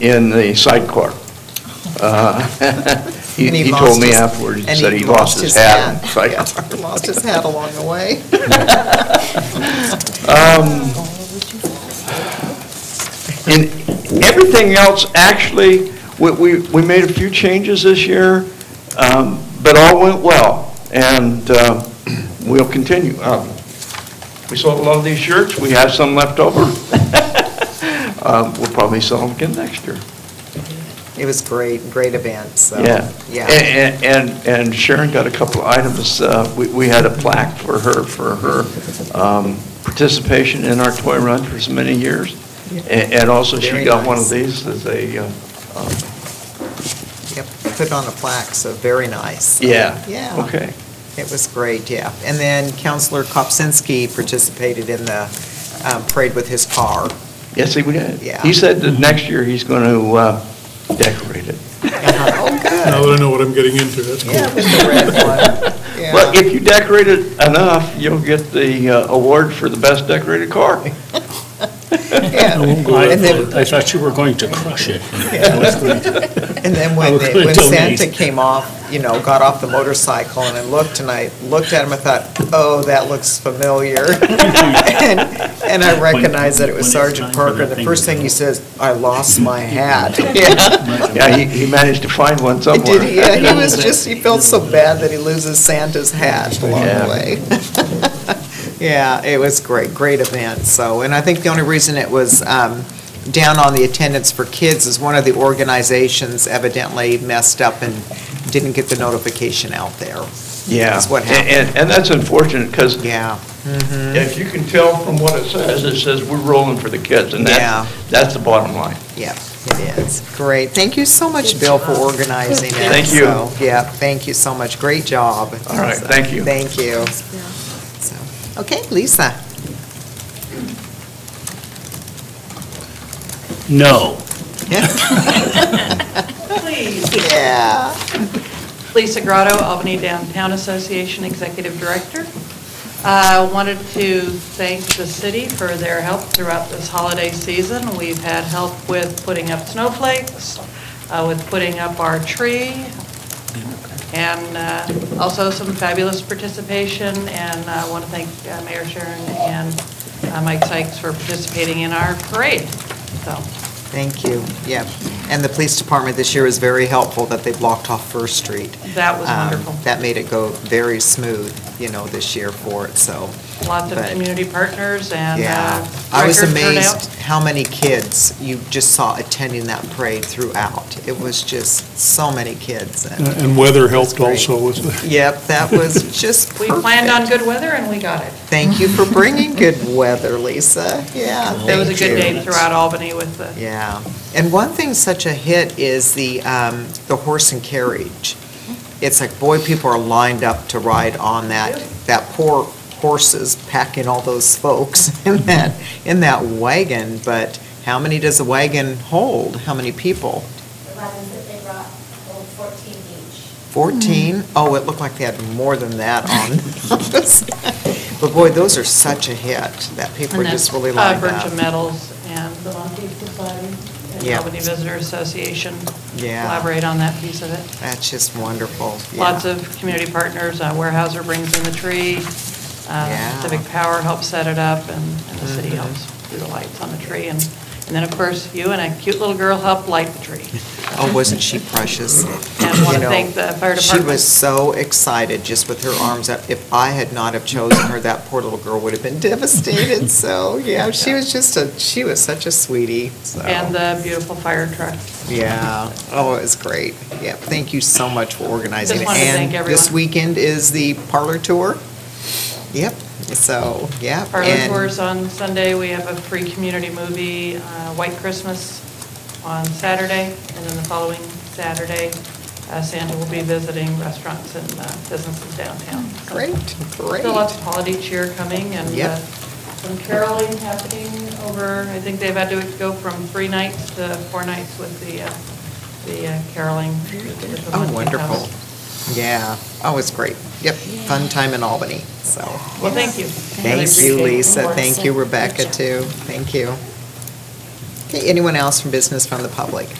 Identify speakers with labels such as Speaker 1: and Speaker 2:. Speaker 1: in the sidecar. Uh, He
Speaker 2: And
Speaker 1: he
Speaker 2: lost
Speaker 1: told me
Speaker 2: his-
Speaker 1: afterwards, he
Speaker 2: and
Speaker 1: said he lost his hat in the
Speaker 2: Yeah,
Speaker 1: sidecar.
Speaker 2: Lost his hat along the way.
Speaker 1: And everything else, actually, we, we, we made a few changes this year, um, but all went well, and, uh, we'll continue. Um, We sold a lot of these shirts, we have some left over. Um, we'll probably sell them again next year,
Speaker 2: It was great, great event, so.
Speaker 1: yeah.
Speaker 2: Yeah.
Speaker 1: And, and, and Sharon got a couple of items, uh, we, we had a plaque for her, for her, um, participation in our toy run for so many years. A- And also she
Speaker 2: Very
Speaker 1: got one of
Speaker 2: nice.
Speaker 1: these as a, uh, um,
Speaker 2: Yep, put on a plaque, so very nice.
Speaker 1: Yeah.
Speaker 2: Yeah.
Speaker 1: Okay.
Speaker 2: It was great, yeah. And then Counselor Kopsinski participated in the um, parade with his car.
Speaker 1: Yes, he would.
Speaker 2: Yeah.
Speaker 1: He said that next year he's going to decorate it.
Speaker 2: Oh,
Speaker 3: Now
Speaker 2: good.
Speaker 3: that I know what I'm getting into, that's cool.
Speaker 2: Yeah, with the red one.
Speaker 1: Well,
Speaker 2: Yeah.
Speaker 1: if you decorate it enough, you'll get the uh, award for the best decorated car.
Speaker 2: Yeah.
Speaker 4: I
Speaker 2: And then
Speaker 4: thought- I thought you were going to crush it.
Speaker 2: And then
Speaker 4: I
Speaker 2: when,
Speaker 4: was
Speaker 2: they-
Speaker 4: gonna
Speaker 2: when
Speaker 4: tell
Speaker 2: Santa
Speaker 4: Nate.
Speaker 2: came off, you know, got off the motorcycle and I looked and I looked at him, I thought, oh, that looks familiar. And and I recognized that it was
Speaker 4: when it's
Speaker 2: Sergeant
Speaker 4: time for
Speaker 2: Parker.
Speaker 4: that
Speaker 2: The
Speaker 4: thing
Speaker 2: first
Speaker 4: to
Speaker 2: thing
Speaker 4: go.
Speaker 2: he says, I lost my hat. Yeah.
Speaker 1: Yeah, he, he managed to find one
Speaker 2: It
Speaker 1: somewhere.
Speaker 2: did, yeah, he was just, he felt so bad that he loses Santa's hat along
Speaker 1: Yeah.
Speaker 2: the way. Yeah, it was great, great event, so, and I think the only reason it was um, down on the attendance for kids is one of the organizations evidently messed up and didn't get the notification out there.
Speaker 1: Yeah.
Speaker 2: That's what
Speaker 1: And-
Speaker 2: happened.
Speaker 1: And, and that's unfortunate because
Speaker 2: Yeah,
Speaker 1: if you can tell from what it says, it says we're rolling for the kids and
Speaker 2: Yeah.
Speaker 1: that, that's the bottom line.
Speaker 2: yeah, it is. Great, thank you so much, Bill, for organizing it.
Speaker 1: Thank you.
Speaker 2: So, Yeah, thank you so much, great job.
Speaker 1: All right,
Speaker 2: So,
Speaker 1: thank you.
Speaker 2: Thank you. So, Okay, Lisa?
Speaker 4: No.
Speaker 5: Please.
Speaker 2: Yeah.
Speaker 5: Lisa Grotto, Albany Downtown Association Executive Director. Uh, Wanted to thank the city for their help throughout this holiday season. We've had help with putting up snowflakes, uh, with putting up our tree, and uh, also some fabulous participation. And I want to thank uh, Mayor Sharon and uh, Mike Sykes for participating in our parade. So,
Speaker 2: Thank you, yeah. And the police department this year was very helpful that they blocked off First Street.
Speaker 5: that was
Speaker 2: Um,
Speaker 5: wonderful.
Speaker 2: That made it go very smooth, you know, this year for it, so,
Speaker 5: Lots of
Speaker 2: But-
Speaker 5: community partners and
Speaker 2: yeah.
Speaker 5: uh,
Speaker 2: I was
Speaker 5: record turnout.
Speaker 2: amazed how many kids you just saw attending that parade throughout. It was just so many kids. and-
Speaker 4: Uh,
Speaker 3: And weather helped
Speaker 2: That's great.
Speaker 3: also with the
Speaker 2: Yep, that was just
Speaker 5: We
Speaker 2: perfect.
Speaker 5: planned on good weather and we got it.
Speaker 2: Thank you for bringing good weather, Lisa, yeah,
Speaker 5: It was a
Speaker 2: thank
Speaker 5: good
Speaker 2: you.
Speaker 5: day throughout Albany with the,
Speaker 2: Yeah, and one thing such a hit is the, um, the horse and carriage. It's like, boy, people are lined up to ride on that, that poor horses packing all those folks in that, in that wagon, but how many does the wagon hold? How many people?
Speaker 6: The wagons that they brought hold 14 each.
Speaker 2: Fourteen?
Speaker 5: Hmm.
Speaker 2: Oh, it looked like they had more than that on. But boy, those are such a hit, that people are just really
Speaker 5: uh,
Speaker 2: lined
Speaker 5: Virgin
Speaker 2: up.
Speaker 5: Metals and the Monkey Society and
Speaker 2: Yeah.
Speaker 5: Albany Visitor Association
Speaker 2: Yeah,
Speaker 5: collaborate on that piece of it.
Speaker 2: that's just wonderful, yeah.
Speaker 5: Lots of community partners, uh, Weyerhaeuser brings in the tree,
Speaker 2: Yeah. Mm-hmm.
Speaker 5: uh, Civic Power helps set it up, and and the city helps do the lights on the tree. And and then, of course, you and a cute little girl helped light the tree.
Speaker 2: Oh, wasn't she precious?
Speaker 5: And want
Speaker 2: You
Speaker 5: to
Speaker 2: know,
Speaker 5: thank the fire
Speaker 2: She
Speaker 5: department.
Speaker 2: was so excited, just with her arms up. If I had not have chosen her, that poor little girl would have been devastated. So, yeah, she was just a, she was such a sweetie, so.
Speaker 5: And the beautiful fire truck.
Speaker 2: Yeah, oh, it was great. Yeah, thank you so much for organizing. it.
Speaker 5: Just wanted to thank
Speaker 2: And this
Speaker 5: everyone.
Speaker 2: weekend is the parlor tour? Yep, so, yeah.
Speaker 5: Parlor
Speaker 2: and-
Speaker 5: tours on Sunday, we have a free community movie, uh, White Christmas on Saturday, and then the following Saturday, uh, Santa will be visiting restaurants and uh, businesses downtown. So-
Speaker 2: Great, great.
Speaker 5: So lots of holiday cheer coming and
Speaker 2: Yep.
Speaker 5: uh, some caroling happening over, I think they've had to go from three nights to four nights with the, uh, the uh, caroling. with the
Speaker 2: Oh,
Speaker 5: Monkey
Speaker 2: wonderful.
Speaker 5: House.
Speaker 2: Yeah, oh, it's great. Yep, fun time in Albany, so.
Speaker 5: Well, thank you. Really
Speaker 2: Thank you,
Speaker 5: appreciate it.
Speaker 2: Lisa.
Speaker 5: More.
Speaker 2: Thank you, Rebecca, too. Thank you. Okay, anyone else from business from the public?